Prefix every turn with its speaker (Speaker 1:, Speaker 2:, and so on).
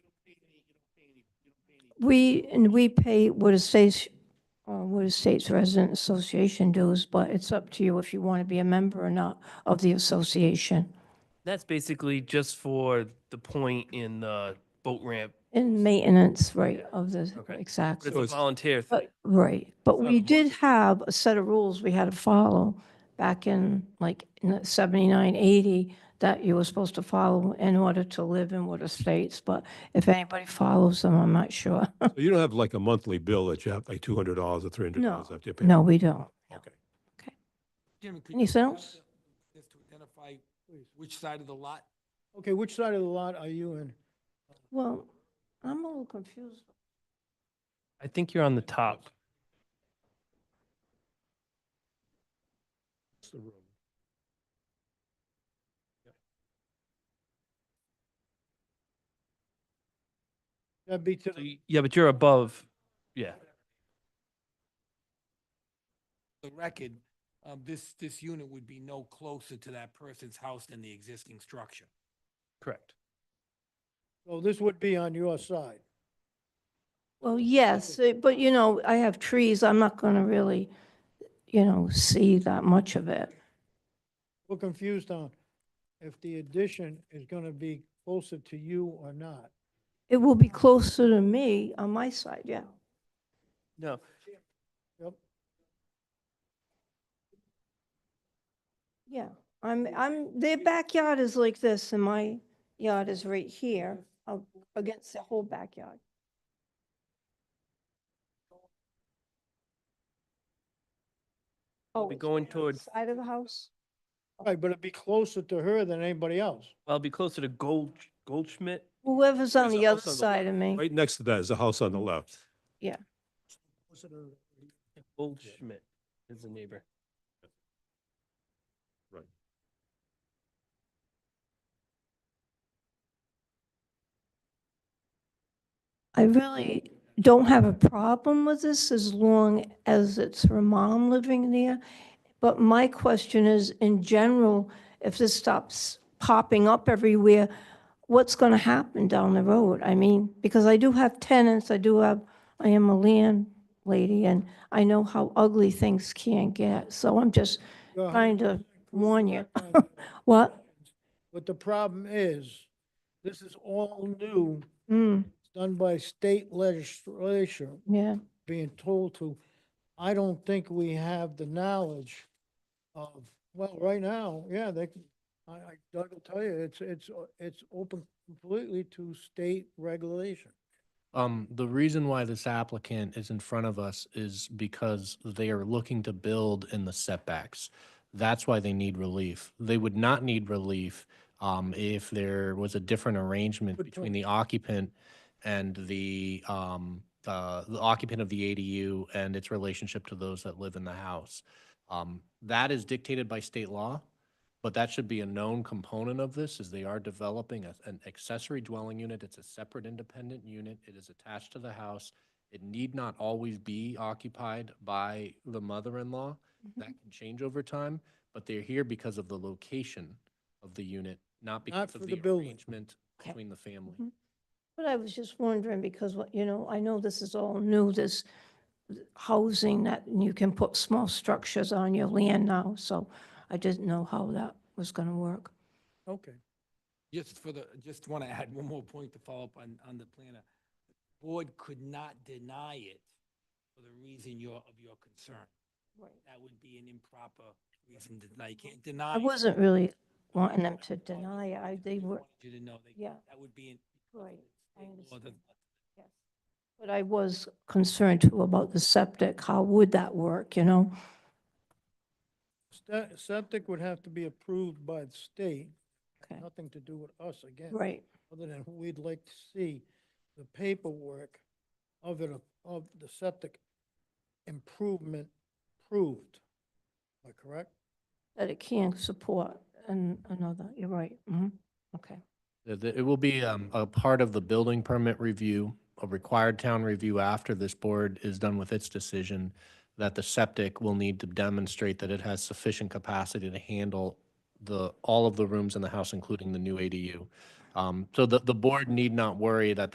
Speaker 1: we, and we pay what is state's, uh, what is state's resident association dues, but it's up to you if you want to be a member or not of the association
Speaker 2: That's basically just for the point in the boat ramp.
Speaker 1: and maintenance, right, of the,
Speaker 2: Okay. But
Speaker 1: exactly.
Speaker 2: It's a volunteer thing.
Speaker 1: But, right, but we
Speaker 2: not-
Speaker 1: did have a set of rules we had to follow back in like in the 79, 80, that you were supposed to follow in order to live in what states, but if anybody follows them, I'm not sure.
Speaker 3: So you don't have like a monthly bill that you have like two hundred dollars or three hundred dollars
Speaker 1: No,
Speaker 3: have to pay?
Speaker 1: No, we don't.
Speaker 3: Okay.
Speaker 4: Jim, could you
Speaker 1: Anything
Speaker 4: help
Speaker 1: else?
Speaker 4: us to identify which side of the lot?
Speaker 5: Okay, which side of the lot are you in?
Speaker 1: Well, I'm a little confused.
Speaker 2: I think you're on the top.
Speaker 5: That'd be to
Speaker 2: So
Speaker 5: the
Speaker 2: y- Yeah, but you're above. Yeah.
Speaker 4: The record, um, this, this unit would be no closer to that person's house than the existing structure.
Speaker 2: Correct.
Speaker 5: So this would be on your side.
Speaker 1: Well, yes, eh, but you know, I have trees, I'm not going to really, you know, see that much of it.
Speaker 5: We're confused on if the addition is going to be closer to you or not.
Speaker 1: It will be closer to me on my side, yeah.
Speaker 2: No,
Speaker 5: Yep.
Speaker 1: Yeah, I'm, I'm, their backyard is like this and my yard is right here up against the whole backyard.
Speaker 2: We'll
Speaker 1: Oh,
Speaker 2: be
Speaker 1: it's
Speaker 2: going
Speaker 1: on the
Speaker 2: towards-
Speaker 1: Side of the house?
Speaker 5: Right, but it'd be closer to her than anybody else.
Speaker 2: I'll be closer to Gold, Goldschmidt.
Speaker 1: Whoever's on
Speaker 3: There's a
Speaker 1: the other
Speaker 3: house on the
Speaker 1: side of me.
Speaker 3: Right next to that is a house on the left.
Speaker 2: Goldschmidt is the neighbor.
Speaker 1: I really don't have a problem with this as long as it's her mom living there. But my question is, in general, if this stops popping up everywhere, what's going to happen down the road? I mean, because I do have tenants, I do have, I am a landlady, and I know how ugly things can get. So I'm just
Speaker 5: You're
Speaker 1: trying to warn you.
Speaker 5: 100%
Speaker 1: What?
Speaker 5: But the problem is, this is all new,
Speaker 1: Mm,
Speaker 5: It's done by state legislation.
Speaker 1: yeah,
Speaker 5: being told to, I don't think we have the knowledge of, well, right now, yeah, they, can- I, I, Doug will tell you, it's, it's, o- it's open completely to state regulation.
Speaker 6: Um, the reason why this applicant is in front of us is because they are looking to build in the setbacks. That's why they need relief. They would not need relief, um, if there was a different arrangement
Speaker 5: Good
Speaker 6: between
Speaker 5: point.
Speaker 6: the occupant and the, um, uh, the occupant of the ADU and its relationship to those that live in the house. Um, that is dictated by state law, but that should be a known component of this, is they are developing a- an accessory dwelling unit. It's a separate independent unit. It is attached to the house. It need not always be occupied by the mother-in-law. That can change over time, but they're here because of the location of the unit, not because
Speaker 5: for
Speaker 6: of
Speaker 5: the
Speaker 6: the
Speaker 5: building.
Speaker 6: arrangement
Speaker 1: Okay.
Speaker 6: between the family.
Speaker 1: Mhm. but I was just wondering because, what you know, I know this is all new, this housing that you can put small structures on your land now, so I didn't know how that was going to work.
Speaker 5: Okay.
Speaker 4: Just for the, just want to add one more point to follow up on, on the planner. Board could not deny it for the reason your, of your concern. That would be an improper reason to deny. You can't deny.
Speaker 1: I
Speaker 4: it.
Speaker 1: wasn't really wanting them to deny it, I, they were,
Speaker 4: Wanted You to know that,
Speaker 1: yeah,
Speaker 4: that would be. an-
Speaker 1: right, I
Speaker 4: Well, the-
Speaker 1: understand, yes. But I was concerned too about the septic, how would that work, you know?
Speaker 5: Sta- Septic would have to be approved by the state,
Speaker 1: Okay,
Speaker 5: nothing to do with us again.
Speaker 1: right,
Speaker 5: Other than we'd like to see the paperwork of it, of the septic improvement proved. Am I correct?
Speaker 1: that it can support and another, you're right, hmm okay.
Speaker 6: Uh, the- It will be um, a part of the building permit review, a required town review after this board is done with its decision, that the septic will need to demonstrate that it has sufficient capacity to handle the, all of the rooms in the house, including the new ADU. Um, So the, the board need not worry that